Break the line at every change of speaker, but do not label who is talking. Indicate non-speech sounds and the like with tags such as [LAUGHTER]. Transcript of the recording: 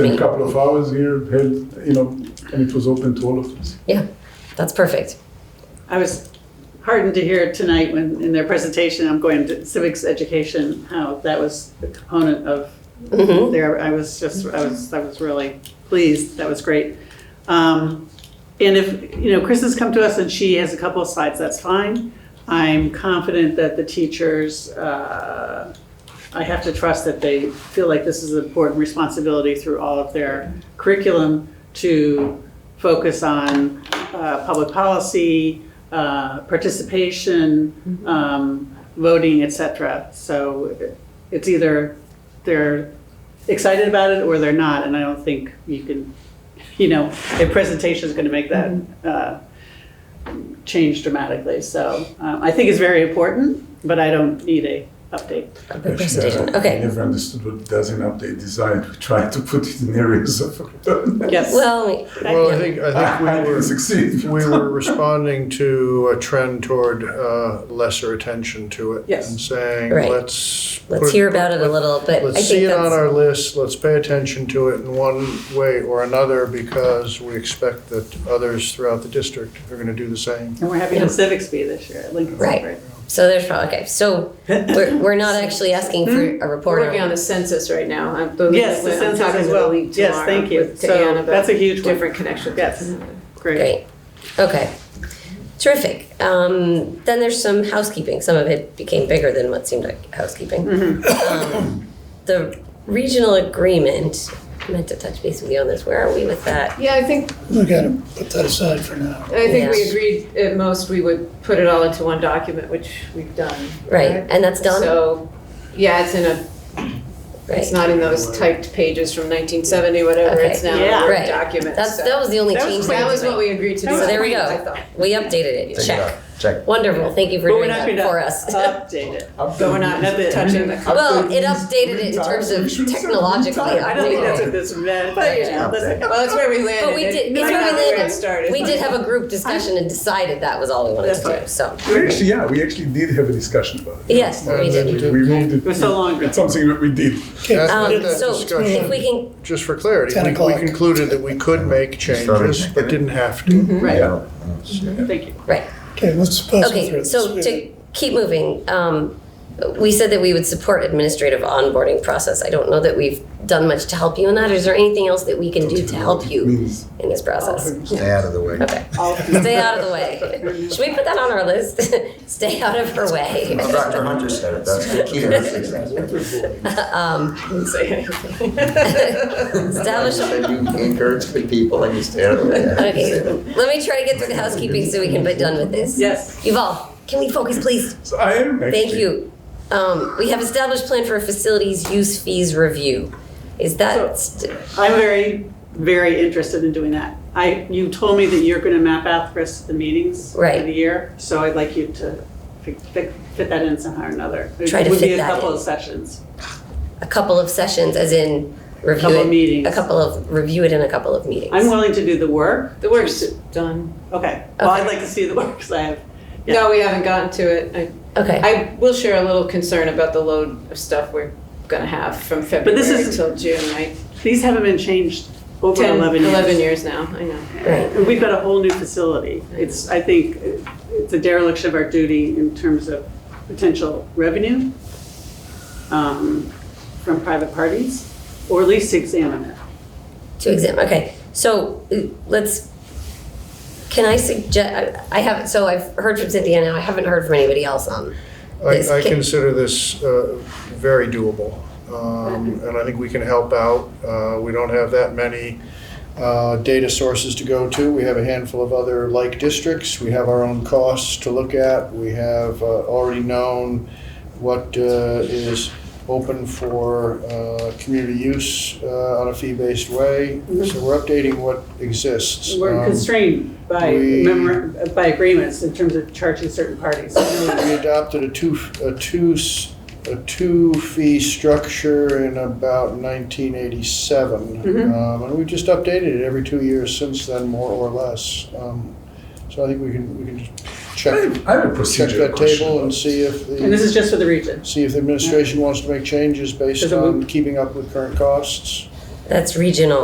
a couple of hours here, held, you know, and it was open to all of us.
Yeah, that's perfect.
I was heartened to hear tonight when, in their presentation, I'm going to civics education, how that was a component of
Mhm.
there. I was just, I was, I was really pleased. That was great. Um, and if, you know, Chris has come to us and she has a couple of slides, that's fine. I'm confident that the teachers, uh, I have to trust that they feel like this is an important responsibility through all of their curriculum to focus on uh, public policy, uh, participation, um, voting, et cetera. So it's either they're excited about it or they're not, and I don't think you can, you know, a presentation is going to make that uh, change dramatically. So um, I think it's very important, but I don't need a update.
A big presentation.
I
Okay.
never understood what does an update design. We tried to put it in areas of. [LAUGHS]
Yes.
Well,
Well, I think, I think
I
we
didn't
were,
succeed.
we were responding to a trend toward uh, lesser attention to it.
Yes.
And saying,
Right.
let's.
let's
put-
hear about it a little, but I
Let's see
think
it on
that's,
our list, let's pay attention to it in one way or another because we expect that others throughout the district are going to do the same.
And we're having
Yeah.
a civics bee this year at Lincoln
Right.
Center.
so there's probably, okay, so we're, we're not actually asking for a
We're
report.
Hmm? working on
on-
the census right now. I'm-
Yes, the
I'm
census
talking
as
to the
well.
league
Yes,
tomorrow
thank you.
with- to Ann
So
about
um, that's a huge one.
Different connections.
Yes. Great.
Great. Okay. Terrific. Um, then there's some housekeeping. Some of it became bigger than what seemed like housekeeping.
Mm-hmm.
Um, the regional agreement, I meant to touch base with you on this. Where are we with that?
Yeah, I think,
We gotta put that aside for now.
I think we
Yes.
agreed at most we would put it all into one document, which we've done.
Right. And that's done?
So, yeah, it's in a,
right.
it's not in those typed pages from 1970, whatever,
Okay.
it's now
Yeah.
a Word
Right.
document.
That's,
so-
that was the only
That was
change.
That was
tonight.
what we agreed to do.
So there we
I
go.
thought.
We updated it. Check.
Check.
Wonderful. Thank you for
But we're
doing
not going
that
to
for us.
update
[LAUGHS]
it. But
[LAUGHS]
we're not touching the.
Well,
Update
it
means
updated it in
retire.
terms of
We should say
technologically
retire.
I don't think that's
updated.
what this meant.
But, you know,
That's-
Well, that's where we landed.
But we
It-
did,
might
it's where
not
we
be where it
landed.
started.
We did have a group discussion and decided that was all we wanted to do, so.
We actually, yeah, we actually did have a discussion about it.
Yes, we
And
did.
then
We
to-
we moved it.
It was so long ago.
It's something that we did.
Okay,
Um,
That
so
discussion-
if we can,
Just for clarity,
10
we- we
o'clock.
concluded that we could make changes, but didn't have
Mm-hmm.
to.
Right,
Yeah.
thank you.
right,
okay, let's pass it through.
okay, so
Let's-
to keep moving, um, we said that we would support administrative onboarding process. I don't know that we've done much to help you in that. Is there anything else that we can do to help you
Means-
in this
Oh,
process?
Stay out of the way.
Okay, stay out of the way. Should we put that on our list? [LAUGHS] Stay out of her way.
Well, Dr. Hunter said it, [LAUGHS] that's the key to her success. [LAUGHS]
[LAUGHS]
[LAUGHS]
Establish a
That you encourage the people and you stay out of the way.
[LAUGHS] Okay, let me try to get through the housekeeping so we can be done with this.
Yes.
Yuval, can we focus, please?
So I am actually.
Thank you. Um, we have established plan for a facilities use fees review. Is that, st-
I'm very, very interested in doing that. I, you told me that you're going to map out the rest of the meetings for
Right.
the year, so I'd like you to fi- fi- fit that in somehow or another.
Try to
It would
fit
be a
that
couple
in.
of sessions.
a couple of sessions, as in review
Couple
it?
of meetings.
A couple of, review it in a couple of meetings.
I'm willing to do the work.
The work's done.
Okay, well, I'd
Okay.
like to see the work, because I have, Yeah.
No, we haven't gotten to it. I
Okay,
I will share a little concern about the load of stuff we're gonna have from February
this is-
till June, right?
these haven't been changed over
10,
11 years.
years now, I know.
right,
And We've got a whole new facility. It's, I think, it's a dereliction of our duty in terms of potential revenue um, from private parties, or at least examine it.
to examine, okay. So uh, let's, can I suggest, I have, so I've heard from Cynthia now, I haven't heard from anybody else on this.
I, I
Can-
consider this uh, very doable, um, and I think we can help out. Uh, We don't have that many uh, data sources to go to. We have a handful of other like districts. We have our own costs to look at. We have uh, already known what uh, is open for uh, community use uh, on a fee-based way. So we're updating what exists.
We're
Um,
constrained by
we-
memor- by agreements in terms of charging certain parties.
We adopted a two, a two, s- a two-fee structure in about 1987.
Mhm.
Um, And we've just updated it every two years since then, more or less. Um, So I think we can, we can just
I
check,
have, I have a
check
procedure
that
question.
table and see if
And this
the,
is just for the region.
see if the administration wants to make changes based
Does it
on
move?
keeping up with current costs.
That's regional.